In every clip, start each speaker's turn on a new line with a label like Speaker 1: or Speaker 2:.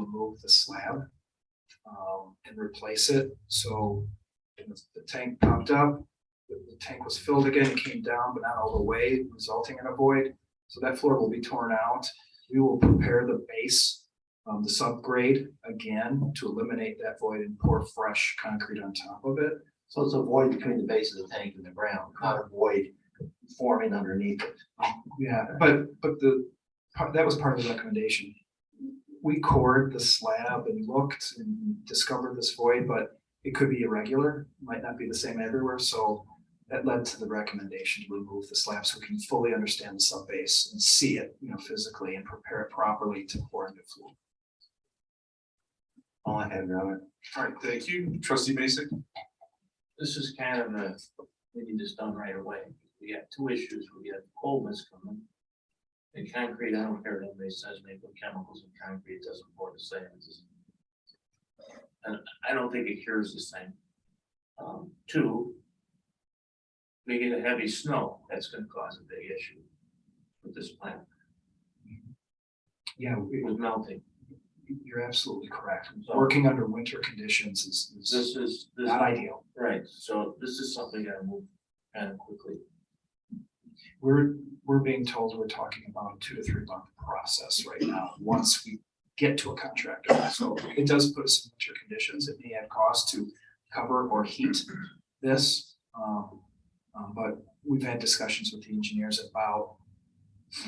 Speaker 1: remove the slab um, and replace it. So and the the tank popped up, the the tank was filled again, came down, but not all the way, resulting in a void. So that floor will be torn out. We will prepare the base, um, the subgrade again to eliminate that void and pour fresh concrete on top of it.
Speaker 2: So it's a void between the base of the tank and the ground, not a void forming underneath it.
Speaker 1: Yeah, but, but the, part- that was part of the recommendation. We cored the slab and looked and discovered this void, but it could be irregular, might not be the same everywhere, so that led to the recommendation to remove the slab so we can fully understand the subbase and see it, you know, physically and prepare it properly to pour into flow.
Speaker 2: All I have, Your Honor.
Speaker 3: All right, thank you. Trustee Basic?
Speaker 4: This is kind of a, we need this done right away. We got two issues. We got coldness coming. And concrete, I don't care what anybody says, maybe put chemicals in concrete, it doesn't pour the same. it doesn't- And I don't think it cures this thing. Um, two. We get a heavy snow, that's gonna cause a big issue with this plant,
Speaker 1: Yeah, we-
Speaker 4: it was melting.
Speaker 1: you're absolutely correct. Working under winter conditions is, is
Speaker 4: This is, this,
Speaker 1: not ideal.
Speaker 4: right, so this is something I move kind of quickly.
Speaker 1: We're, we're being told we're talking about a two to three month process right now, once we get to a contractor. So it does put us in winter conditions. It may have cost to cover or heat this. um, um, but we've had discussions with the engineers about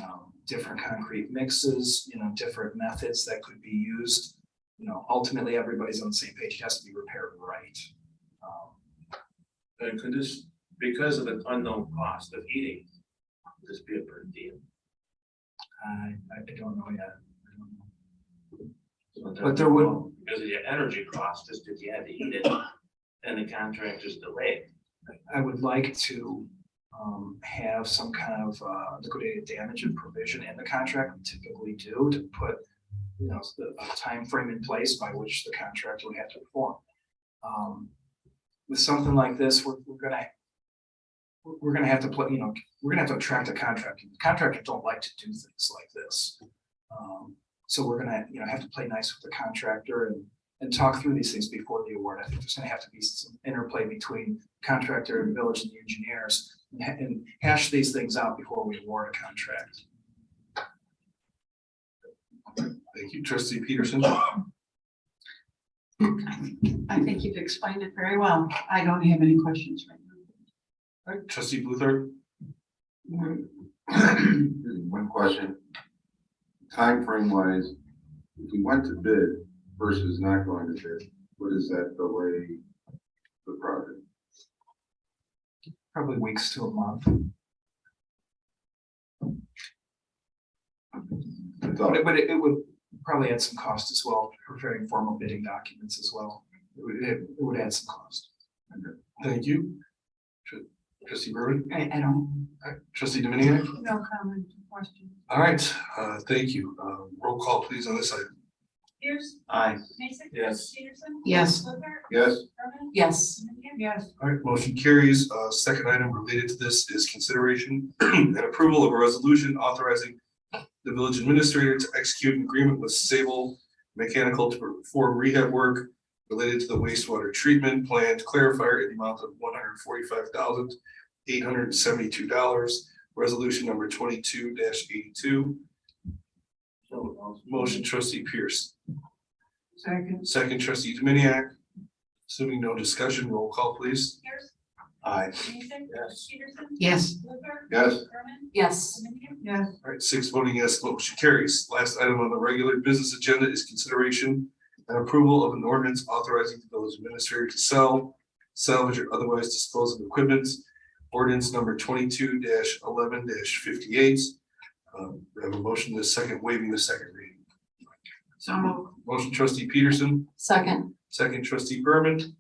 Speaker 1: um, different concrete mixes, you know, different methods that could be used. You know, ultimately, everybody's on the same page. It has to be repaired right. Um,
Speaker 4: And uh, could this, because of the unknown cost of heating, could this be a per diem?
Speaker 1: I, I don't know yet. I don't know.
Speaker 4: So
Speaker 1: But there would-
Speaker 4: Because of your energy cost, just if you had to heat it, and the contract is delayed.
Speaker 1: I would like to um have some kind of uh liquidated damage and provision in the contract, we typically do to put. You know, the a timeframe in place by which the contractor would have to perform. Um, with something like this, we're we're gonna. We're we're gonna have to put, you know, we're gonna have to attract a contractor, contractors don't like to do things like this. Um, so we're gonna, you know, have to play nice with the contractor and and talk through these things before the award. I think there's gonna have to be some interplay between contractor and village and the engineers and ha- and hash these things out before we award a contract.
Speaker 3: Thank you. Trustee Peterson?
Speaker 5: I think you've explained it very well. I don't have any questions right
Speaker 3: All right, Trustee Luther?
Speaker 5: now.
Speaker 6: Excuse me, One question. Time frame wise, if we went to bid versus not going to bid, what is that delay the project?
Speaker 1: Probably weeks to a month,
Speaker 6: That's all.
Speaker 1: but it, but it it would probably add some cost as well, preparing formal bidding documents as well. It would, it would add some cost.
Speaker 3: Thank you. Tr- Trustee Burman?
Speaker 5: I, I don't,
Speaker 3: All right, Trustee Dominiac?
Speaker 5: no comment, question.
Speaker 3: All right, uh, thank you. Uh, roll call please on this item.
Speaker 7: Pierce,
Speaker 4: Aye.
Speaker 7: Mason.
Speaker 4: Yes.
Speaker 7: Peterson.
Speaker 5: Yes.
Speaker 7: Luther.
Speaker 6: Yes,
Speaker 7: Herman.
Speaker 5: Yes,
Speaker 7: Dominia.
Speaker 5: yes,
Speaker 3: All right, motion carries. Uh, second item related to this is consideration and approval of a resolution authorizing the village administrator to execute an agreement with Sable Mechanical to perform rehab work related to the wastewater treatment plant clarifier in the amount of one hundred forty-five thousand eight hundred and seventy-two dollars. Resolution number twenty-two eighty-two.
Speaker 4: So, uh,
Speaker 3: Motion trustee Pierce,
Speaker 5: second,
Speaker 3: second trustee Dominiac. Assuming no discussion, roll call please.
Speaker 7: Pierce,
Speaker 3: Aye.
Speaker 7: Mason.
Speaker 4: Yes.
Speaker 7: Peterson.
Speaker 5: yes,
Speaker 7: Luther.
Speaker 6: yes,
Speaker 7: Herman.
Speaker 5: yes,
Speaker 7: Dominia.
Speaker 5: yes,
Speaker 3: All right, six voting yes, motion carries. Last item on the regular business agenda is consideration and approval of an ordinance authorizing the village administrator to sell, salvage or otherwise dispose of equipment. Ordinance number twenty-two eleven fifty-eight. Um, we have a motion to second waiving the second reading.
Speaker 5: so moved.
Speaker 3: Motion trustee Peterson,
Speaker 5: Second,
Speaker 3: second trustee Berman.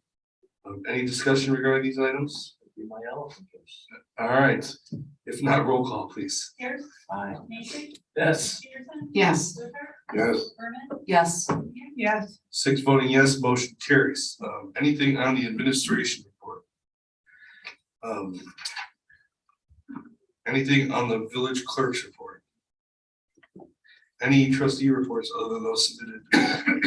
Speaker 3: Um, any discussion regarding these items?
Speaker 4: be my elephant case.
Speaker 3: All right, if not, roll call, please.
Speaker 7: Pierce,
Speaker 4: Aye.
Speaker 7: Mason.
Speaker 4: Yes.
Speaker 7: Peterson.
Speaker 5: yes,
Speaker 7: Luther.
Speaker 6: yes.
Speaker 7: Herman.
Speaker 5: yes,
Speaker 7: Dominia.
Speaker 5: yes,
Speaker 3: Six voting yes, motion carries. Um, anything on the administration report? Um. Anything on the village clerk's report? Any trustee reports other than those submitted